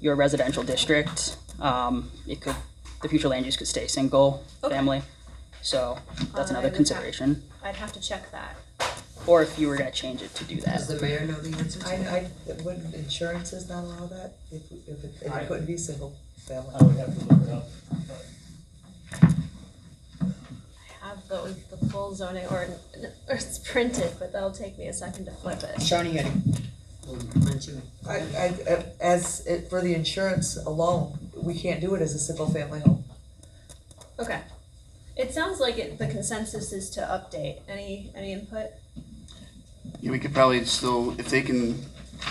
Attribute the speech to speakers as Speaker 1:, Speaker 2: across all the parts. Speaker 1: your residential district. Um, it could, the future land use could stay single
Speaker 2: Okay.
Speaker 1: family. So that's
Speaker 2: Um, I
Speaker 1: another
Speaker 2: would have-
Speaker 1: consideration.
Speaker 2: I'd have to check that.
Speaker 1: Or if you were gonna change it to do
Speaker 3: Does
Speaker 1: that.
Speaker 3: the mayor know the answer to
Speaker 4: I,
Speaker 3: that?
Speaker 4: I, wouldn't insurances not allow that, if, if it, if
Speaker 5: I-
Speaker 4: it couldn't be single family?
Speaker 3: Uh,
Speaker 5: I would Oh, have to look it up.
Speaker 2: I have the, the full zoning ordinance, or it's printed, but that'll take me a second to flip it.
Speaker 3: Shawnee had it.
Speaker 4: I, I, as, it- for the insurance alone, we can't do it as a single family home.
Speaker 2: Okay. It sounds like it, the consensus is to update. Any, any input?
Speaker 6: Yeah, we could probably still, if they can,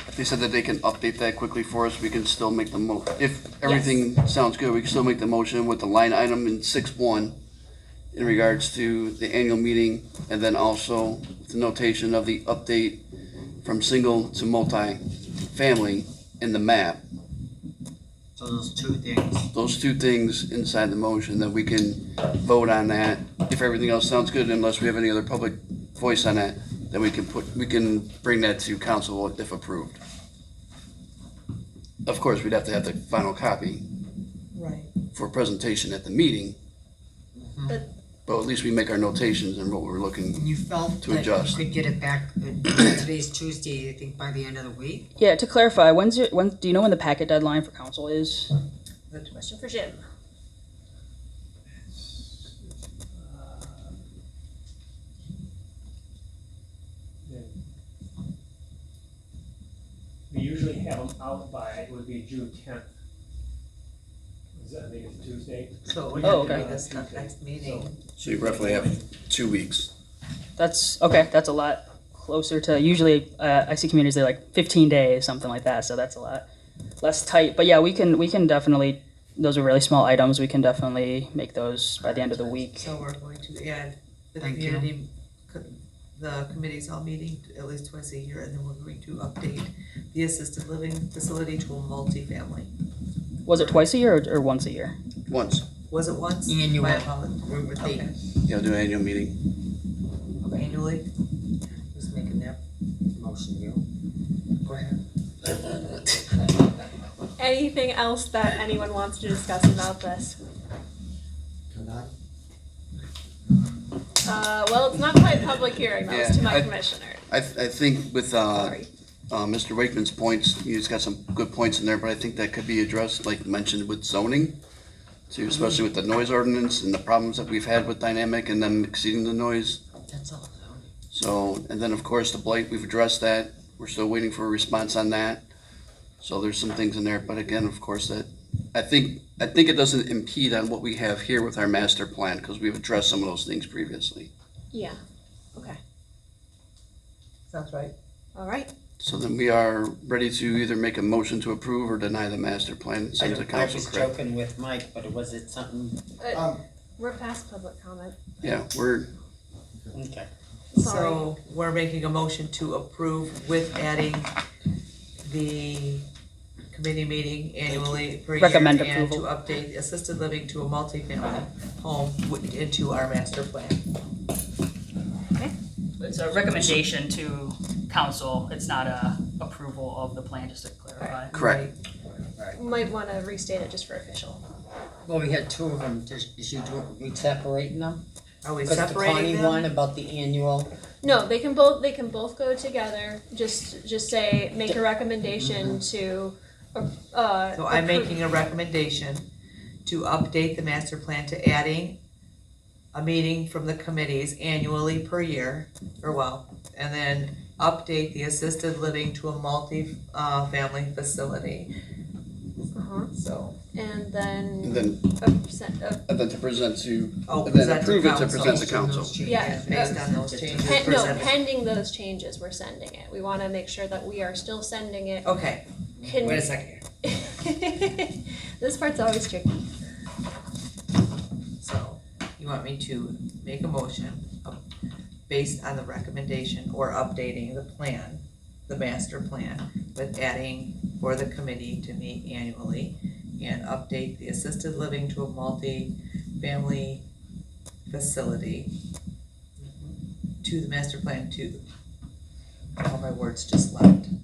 Speaker 6: if they said that they can update that quickly for us, we can still make the mo, if everything sounds good, we can still make the motion with the line item in six one in regards to the annual meeting, and then also the notation of the update from single to multi-family in the map.
Speaker 7: So those two things.
Speaker 6: Those two things inside the motion that we can vote on that. If everything else sounds good, unless we have any other public voice on that, then we can put, we can bring that to council if approved. Of course, we'd have to have the final copy
Speaker 4: Right.
Speaker 6: for presentation at the meeting.
Speaker 2: But-
Speaker 6: But at least we make our notations and what we're looking,
Speaker 3: And you felt
Speaker 6: To
Speaker 3: that you
Speaker 6: adjust.
Speaker 3: could get it back, uh, today's Tuesday, I think by the end of the week?
Speaker 1: Yeah, to clarify, when's your, when, do you know when the packet deadline for council is?
Speaker 2: Question for Jim.
Speaker 5: We usually have them out by, it would be June tenth. Is that, I think it's Tuesday?
Speaker 3: So we
Speaker 1: Oh,
Speaker 3: have to
Speaker 1: okay.
Speaker 3: do this not next meeting.
Speaker 6: so you roughly have two weeks.
Speaker 1: That's, okay, that's a lot closer to, usually, uh, I see communities, they're like fifteen days, something like that, so that's a lot less tight. But yeah, we can, we can definitely, those are really small items, we can definitely make those by the end of the week.
Speaker 4: So we're going to add the
Speaker 3: Thank you.
Speaker 4: community, co- the committee's all meeting at least twice a year, and then we're going to update the assisted living facility to a multifamily.
Speaker 1: Was it twice a year or, or once a year?
Speaker 6: Once,
Speaker 4: Was it once?
Speaker 3: Annual.
Speaker 4: My apologies.
Speaker 3: We were
Speaker 4: Okay,
Speaker 3: thinking,
Speaker 6: you know, do an annual meeting.
Speaker 4: annually,
Speaker 3: who's making that motion, you? Go ahead.
Speaker 2: Anything else that anyone wants to discuss about this? Uh, well, it's not quite public hearing, that was to
Speaker 6: Yeah,
Speaker 2: my
Speaker 6: I-
Speaker 2: commissioner.
Speaker 6: I, th- I think with, uh,
Speaker 2: Sorry.
Speaker 6: uh, Mr. Wakeman's points, he's got some good points in there, but I think that could be addressed, like mentioned with zoning, too, especially with the noise ordinance and the problems that we've had with dynamic and them exceeding the noise.
Speaker 3: That's all.
Speaker 6: So, and then of course the blight, we've addressed that. We're still waiting for a response on that. So there's some things in there, but again, of course, that, I think, I think it doesn't impede on what we have here with our master plan, because we've addressed some of those things previously.
Speaker 2: Yeah, okay,
Speaker 4: sounds right.
Speaker 2: all right.
Speaker 6: So then we are ready to either make a motion to approve or deny the master plan,
Speaker 8: I
Speaker 6: send to
Speaker 8: don't- I
Speaker 6: council,
Speaker 8: was
Speaker 6: correct?
Speaker 8: joking with Mike, but was it something,
Speaker 2: Uh,
Speaker 8: um,
Speaker 2: We're past public comment,
Speaker 6: Yeah, we're,
Speaker 8: okay.
Speaker 2: sorry.
Speaker 4: So we're making a motion to approve with adding the committee meeting annually per year.
Speaker 1: Recommend
Speaker 4: and
Speaker 1: approval.
Speaker 4: to update assisted living to a multifamily home wi- into our master plan.
Speaker 9: It's a recommendation to council, it's not a approval of the plan, just to clarify.
Speaker 6: correct.
Speaker 2: Might wanna restate it just for official.
Speaker 3: Well, we had two of them, Does- is you do, we separating them?
Speaker 4: Are we
Speaker 3: Cause the Connie
Speaker 4: separating
Speaker 3: one
Speaker 4: them?
Speaker 3: about the annual,
Speaker 2: No, they can both, they can both go together, just, just say, make a recommendation to, uh.
Speaker 4: Mm-hmm. So I'm
Speaker 2: approve-
Speaker 4: making a recommendation to update the master plan to adding a meeting from the committees annually per year, or well, and then update the assisted living to a multi, uh, family facility,
Speaker 2: Uh-huh,
Speaker 4: so.
Speaker 2: and then,
Speaker 6: And then,
Speaker 4: Mm-hmm.
Speaker 2: uh, sen- uh,
Speaker 6: and then to present to,
Speaker 4: Oh,
Speaker 6: and then
Speaker 4: present to
Speaker 6: approve it to
Speaker 4: council.
Speaker 6: present to council.
Speaker 2: Yeah.
Speaker 4: Based on those changes
Speaker 2: pen- no,
Speaker 4: presented.
Speaker 2: pending those changes, we're sending it. We wanna make sure that we are still sending it.
Speaker 4: Okay,
Speaker 2: Can-
Speaker 3: wait a second.
Speaker 2: This part's always tricky.
Speaker 4: so you want me to make a motion of- based on the recommendation or updating the plan, the master plan, with adding for the committee to meet annually and update the assisted living to a multi-family facility to the master plan to, all my words just left,